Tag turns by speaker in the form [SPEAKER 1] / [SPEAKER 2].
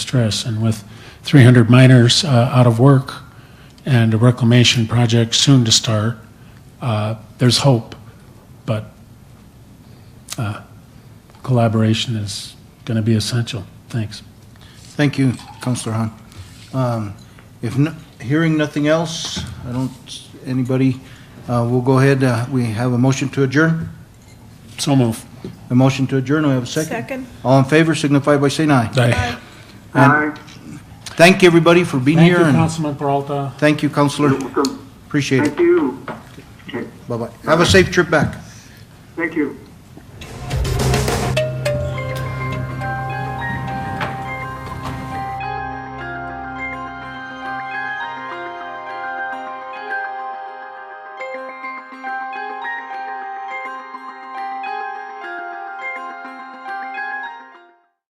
[SPEAKER 1] stress. And with 300 miners uh, out of work and a reclamation project soon to start, uh, there's hope, but uh, collaboration is going to be essential. Thanks.
[SPEAKER 2] Thank you, Counselor Hahn. Um, If, no- hearing nothing else, I don't, anybody, uh, we'll go ahead, uh, we have a motion to adjourn.
[SPEAKER 1] So move.
[SPEAKER 2] A motion to adjourn, we have a second.
[SPEAKER 3] Second.
[SPEAKER 2] All in favor signify by saying aye.
[SPEAKER 1] Aye.
[SPEAKER 2] Aye. Thank you, everybody, for being
[SPEAKER 1] Thank you,
[SPEAKER 2] here, and
[SPEAKER 1] Councilman Peralta.
[SPEAKER 2] thank you, Counselor.
[SPEAKER 4] Welcome.
[SPEAKER 2] Appreciate it.
[SPEAKER 4] Thank you. Okay,
[SPEAKER 2] Bye-bye. Have a safe trip back.
[SPEAKER 4] Thank you.